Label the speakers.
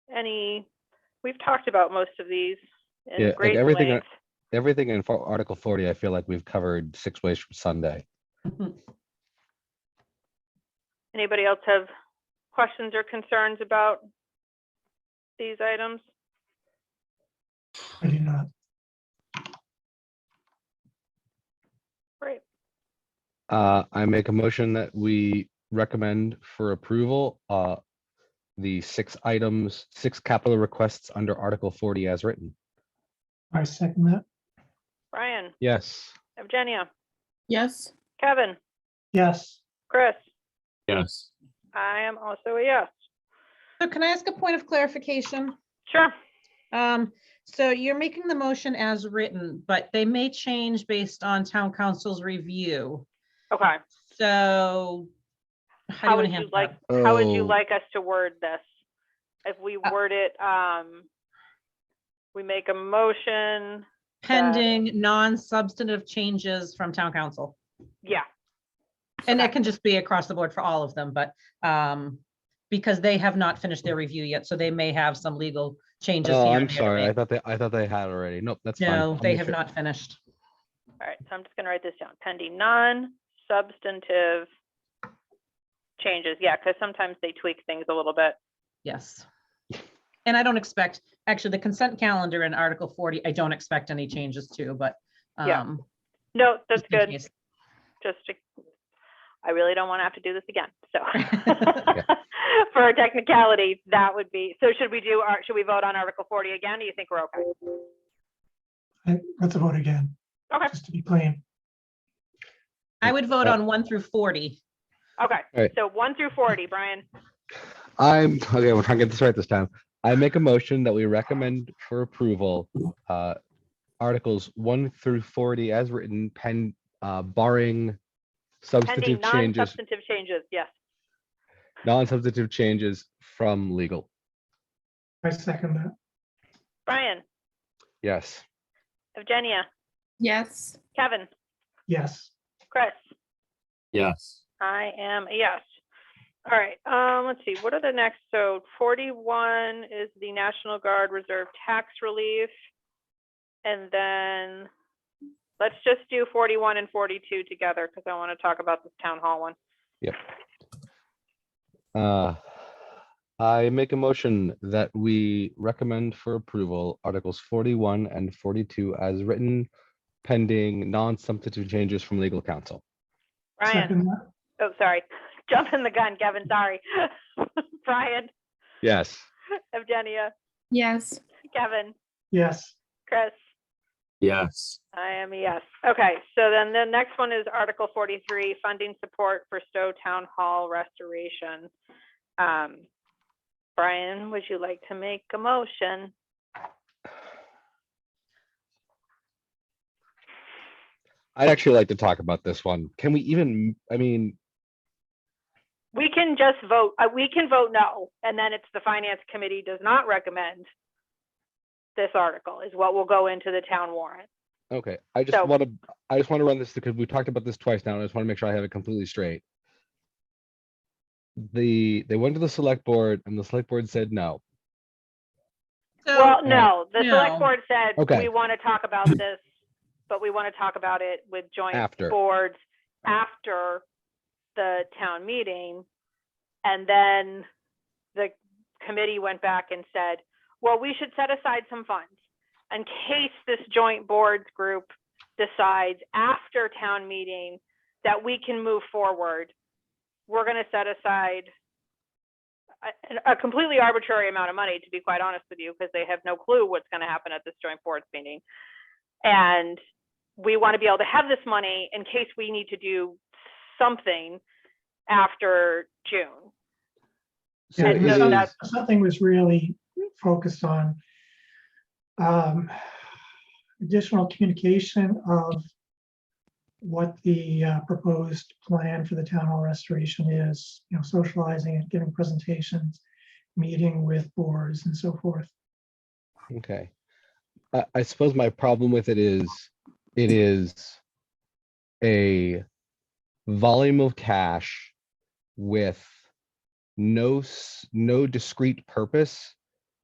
Speaker 1: any, we've talked about most of these
Speaker 2: Yeah,
Speaker 1: in
Speaker 2: like
Speaker 1: great
Speaker 2: everything I-
Speaker 1: length.
Speaker 2: Everything in fo- Article forty, I feel like we've covered six ways from Sunday.
Speaker 1: Anybody else have questions or concerns about these items?
Speaker 3: I do not.
Speaker 1: Great.
Speaker 2: Uh, I make a motion that we recommend for approval, uh, the six items, six capital requests under Article forty as written.
Speaker 3: I second that.
Speaker 1: Brian,
Speaker 2: Yes.
Speaker 1: Evgenia,
Speaker 4: Yes,
Speaker 1: Kevin,
Speaker 3: Yes,
Speaker 1: Chris,
Speaker 5: Yes.
Speaker 1: I am also a yes.
Speaker 6: So can I ask a point of clarification?
Speaker 1: Sure.
Speaker 6: Um, so you're making the motion as written, but they may change based on town council's review.
Speaker 1: Okay.
Speaker 6: So how do
Speaker 1: How
Speaker 6: you want
Speaker 1: would
Speaker 6: to
Speaker 1: you
Speaker 6: handle
Speaker 1: like,
Speaker 6: that?
Speaker 1: how would you
Speaker 2: Oh.
Speaker 1: like us to word this? If we
Speaker 6: Uh,
Speaker 1: word it, um, we make a motion,
Speaker 6: Pending non-substantive changes from town council.
Speaker 1: yeah,
Speaker 6: And
Speaker 1: Okay.
Speaker 6: that can just be across the board for all of them, but, um, because they have not finished their review yet, so they may have some legal changes.
Speaker 2: Oh,
Speaker 6: here
Speaker 2: I'm
Speaker 6: and there to
Speaker 2: sorry. I
Speaker 6: make.
Speaker 2: thought they, I thought they had already. Nope, that's fine.
Speaker 6: No,
Speaker 2: I'll
Speaker 6: they
Speaker 2: make
Speaker 6: have
Speaker 2: sure-
Speaker 6: not finished.
Speaker 1: all right, so I'm just gonna write this down, pending non-substantive changes, yeah, because sometimes they tweak things a little bit.
Speaker 6: Yes. And I don't expect, actually, the consent calendar in Article forty, I don't expect any changes to, but.
Speaker 1: Yeah,
Speaker 6: um,
Speaker 1: No, that's
Speaker 6: just in
Speaker 1: good,
Speaker 6: case.
Speaker 1: just to, I really don't want to have to do this again, so.
Speaker 6: Yeah.
Speaker 1: For a technicality, that would be, so should we do, our- should we vote on Article forty again? Do you think we're okay?
Speaker 3: I- let's vote again,
Speaker 1: Okay,
Speaker 3: just to be plain.
Speaker 6: I would vote
Speaker 2: Uh,
Speaker 6: on one through forty.
Speaker 1: okay,
Speaker 2: Alright.
Speaker 1: so one through forty, Brian,
Speaker 2: I'm, okay, we're trying to get this right this time. I make a motion that we recommend for approval, uh, Articles one through forty as written, pen, uh, barring
Speaker 1: pending
Speaker 2: substantive changes,
Speaker 1: non-substantive changes, yes.
Speaker 2: non-substantive changes from legal.
Speaker 3: I second that.
Speaker 1: Brian,
Speaker 2: Yes.
Speaker 1: Evgenia,
Speaker 4: yes,
Speaker 1: Kevin,
Speaker 3: Yes,
Speaker 1: Chris,
Speaker 5: Yes.
Speaker 1: I am a yes. All right, um, let's see, what are the next? So forty-one is the National Guard Reserve Tax Relief. And then let's just do forty-one and forty-two together because I want to talk about this town hall one.
Speaker 2: Uh, I make a motion that we recommend for approval Articles forty-one and forty-two as written, pending non-substantive changes from legal counsel.
Speaker 1: Brian,
Speaker 3: second that.
Speaker 1: oh, sorry, jumping the gun, Kevin, sorry. Brian,
Speaker 2: Yes.
Speaker 1: Evgenia,
Speaker 4: yes,
Speaker 1: Kevin,
Speaker 3: Yes,
Speaker 1: Chris.
Speaker 5: Yes.
Speaker 1: I am a yes. Okay, so then the next one is Article forty-three, funding support for Stowe Town Hall restoration. Um, Brian, would you like to make a motion?
Speaker 2: I'd actually like to talk about this one. Can we even, I mean,
Speaker 1: We can just vote, uh, we can vote no, and then it's the Finance Committee does not recommend this article is what will go into the town warrant.
Speaker 2: okay, I
Speaker 1: So-
Speaker 2: just want to, I just want to run this because we talked about this twice now and I just want to make sure I have it completely straight. The, they went to the select board and the select board said no.
Speaker 6: So,
Speaker 1: Well, no, the
Speaker 6: No.
Speaker 1: select board said,
Speaker 2: Okay.
Speaker 1: we want to talk about this, but we want to talk about it with joint
Speaker 2: After.
Speaker 1: boards after the town meeting. And then the committee went back and said, well, we should set aside some funds in case this joint boards group decides after town meeting that we can move forward. We're going to set aside a- a completely arbitrary amount of money, to be quite honest with you, because they have no clue what's going to happen at this joint boards meeting. And we want to be able to have this money in case we need to do something after June.
Speaker 2: So
Speaker 3: yeah,
Speaker 1: And
Speaker 2: it
Speaker 1: so
Speaker 3: because
Speaker 2: is-
Speaker 1: that's-
Speaker 3: noth- nothing was really focused on um, additional communication of what the uh, proposed plan for the town hall restoration is, you know, socializing it, giving presentations, meeting with boards and so forth.
Speaker 2: Okay. I, I suppose my problem with it is, it is a volume of cash with no, s- no discrete purpose